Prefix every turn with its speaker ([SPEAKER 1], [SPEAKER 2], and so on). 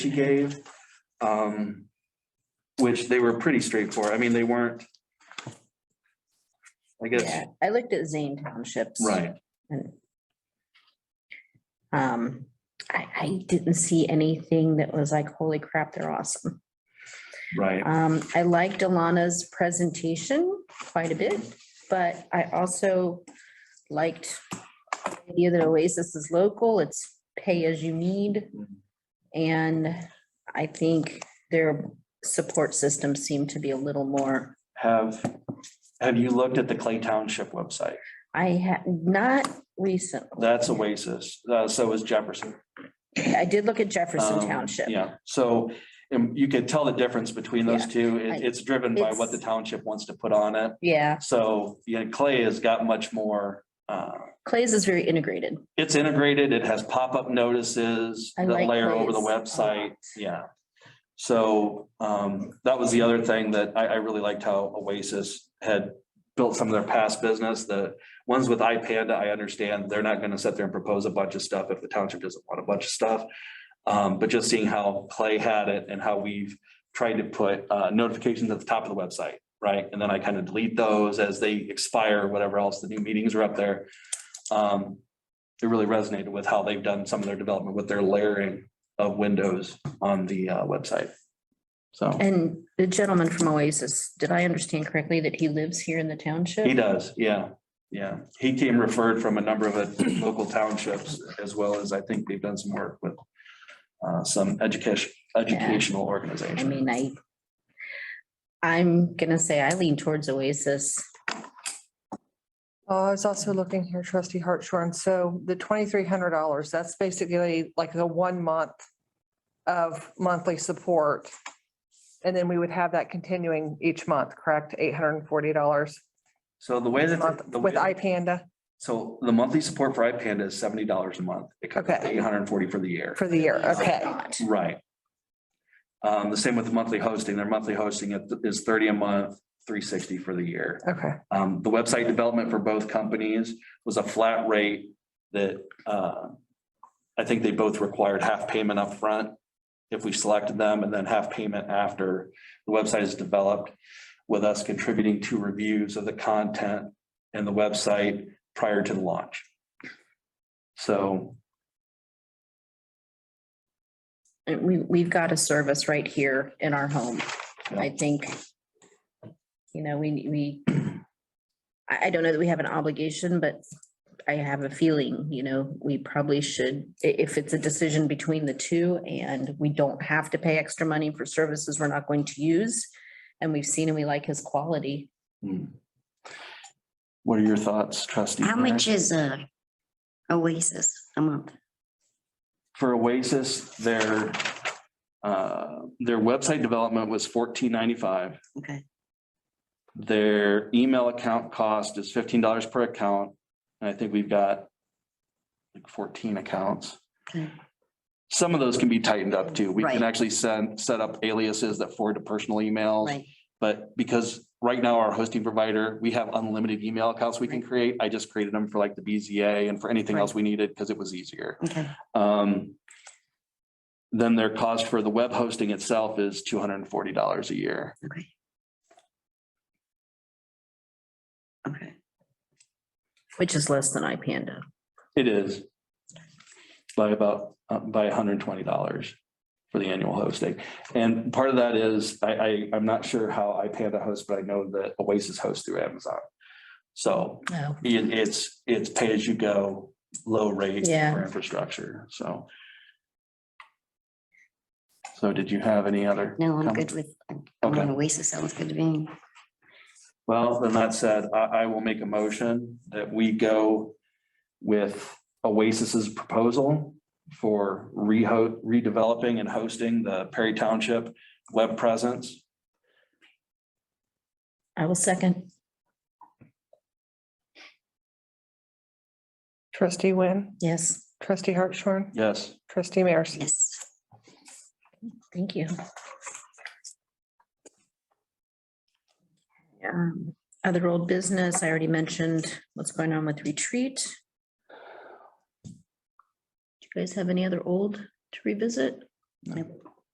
[SPEAKER 1] she gave. Um, which they were pretty straightforward. I mean, they weren't. I guess,
[SPEAKER 2] Yeah, I looked at Zane Townships.
[SPEAKER 1] right,
[SPEAKER 2] and, Um, I, I didn't see anything that was like, holy crap, they're awesome.
[SPEAKER 1] right.
[SPEAKER 2] Um, I liked Alana's presentation quite a bit, but I also liked the idea that Oasis is local, it's pay as you need. And I think their support system seemed to be a little more,
[SPEAKER 1] Have, have you looked at the Clay Township website?
[SPEAKER 2] I had, not recent.
[SPEAKER 1] That's Oasis. Uh, so is Jefferson.
[SPEAKER 2] I did look at Jefferson
[SPEAKER 1] Um,
[SPEAKER 2] Township.
[SPEAKER 1] Yeah, so um, you could tell the difference between those two. It-
[SPEAKER 2] I-
[SPEAKER 1] It's driven by what the
[SPEAKER 2] it's-
[SPEAKER 1] township wants to put on it.
[SPEAKER 2] Yeah,
[SPEAKER 1] So, yeah, Clay has got much more, uh,
[SPEAKER 2] Clay's is very integrated.
[SPEAKER 1] it's integrated, it has pop-up notices
[SPEAKER 2] I
[SPEAKER 1] that
[SPEAKER 2] like
[SPEAKER 1] layer over the
[SPEAKER 2] Clay's a lot.
[SPEAKER 1] website, yeah. So, um, that was the other thing that I, I really liked how Oasis had built some of their past business, the ones with iPanda, I understand, they're not gonna sit there and propose a bunch of stuff if the township doesn't want a bunch of stuff. Um, but just seeing how Clay had it and how we've tried to put, uh, notifications at the top of the website, right? And then I kind of delete those as they expire, whatever else, the new meetings are up there. Um, it really resonated with how they've done some of their development with their layering of windows on the uh, website. So
[SPEAKER 2] And the gentleman from Oasis, did I understand correctly that he lives here in the township?
[SPEAKER 1] he does, yeah, yeah. He came referred from a number of uh, local townships as well as I think they've done some work with uh, some education, educational
[SPEAKER 2] I
[SPEAKER 1] organization.
[SPEAKER 2] mean, I, I'm gonna say I lean towards Oasis.
[SPEAKER 3] Oh, I was also looking here, trustee Hartshorn. So the twenty-three hundred dollars, that's basically like the one month of monthly support. And then we would have that continuing each month, correct? Eight hundred and forty dollars
[SPEAKER 1] So the way that. the
[SPEAKER 3] with
[SPEAKER 1] way-
[SPEAKER 3] iPanda
[SPEAKER 1] So the monthly support for iPanda is seventy dollars a month. It comes
[SPEAKER 3] Okay.
[SPEAKER 1] eight hundred and forty for the year.
[SPEAKER 3] for the year. Okay.
[SPEAKER 2] Not.
[SPEAKER 1] Right. Um, the same with the monthly hosting. Their monthly hosting is thirty a month, three sixty for the year.
[SPEAKER 3] Okay.
[SPEAKER 1] Um, the website development for both companies was a flat rate that, uh, I think they both required half payment up front if we selected them and then half payment after the website is developed with us contributing to reviews of the content and the website prior to the launch. So,
[SPEAKER 2] And we, we've got a service right here in our home. I think, you know, we, we, I, I don't know that we have an obligation, but I have a feeling, you know, we probably should, i- if it's a decision between the two and we don't have to pay extra money for services we're not going to use. And we've seen and we like his quality.
[SPEAKER 1] hmm. what are your thoughts, trustee?
[SPEAKER 4] How
[SPEAKER 1] Mary?
[SPEAKER 4] much is a Oasis a month?
[SPEAKER 1] for Oasis, their, uh, their website development was fourteen ninety-five.
[SPEAKER 4] Okay,
[SPEAKER 1] Their email account cost is fifteen dollars per account, and I think we've got like fourteen accounts.
[SPEAKER 4] okay.
[SPEAKER 1] Some of those can be tightened up too. We can
[SPEAKER 4] Right.
[SPEAKER 1] actually send, set up aliases that forward to personal emails.
[SPEAKER 4] Right,
[SPEAKER 1] But because right now our hosting provider, we have unlimited email accounts we can create. I just created them for like the BZA and for anything
[SPEAKER 4] Right.
[SPEAKER 1] else we needed because it was easier.
[SPEAKER 4] okay,
[SPEAKER 1] Um, then their cost for the web hosting itself is two hundred and forty dollars a year.
[SPEAKER 4] okay. Okay,
[SPEAKER 2] Which is less than iPanda.
[SPEAKER 1] It is by about, uh, by hundred and twenty dollars for the annual hosting. And part of that is, I, I, I'm not sure how iPanda hosts, but I know that Oasis hosts through Amazon. So
[SPEAKER 2] Oh.
[SPEAKER 1] it- it's, it's pay as you go, low rate
[SPEAKER 2] Yeah.
[SPEAKER 1] for infrastructure, so. So did you have any other?
[SPEAKER 4] no, I'm
[SPEAKER 1] comments?
[SPEAKER 4] good with, I'm
[SPEAKER 1] Okay.
[SPEAKER 4] on Oasis, sounds good to me.
[SPEAKER 1] Well, then that said, I, I will make a motion that we go with Oasis's proposal for reho, redeveloping and hosting the Perry Township web presence.
[SPEAKER 2] I will second.
[SPEAKER 3] Trustee Wynn,
[SPEAKER 2] Yes,
[SPEAKER 3] trustee Hartshorn,
[SPEAKER 1] Yes,
[SPEAKER 3] trustee Mears.
[SPEAKER 4] Yes,
[SPEAKER 2] thank you. Um, Other old business, I already mentioned what's going on with retreat. Do you guys have any other old to revisit?
[SPEAKER 1] No.
[SPEAKER 2] Nope.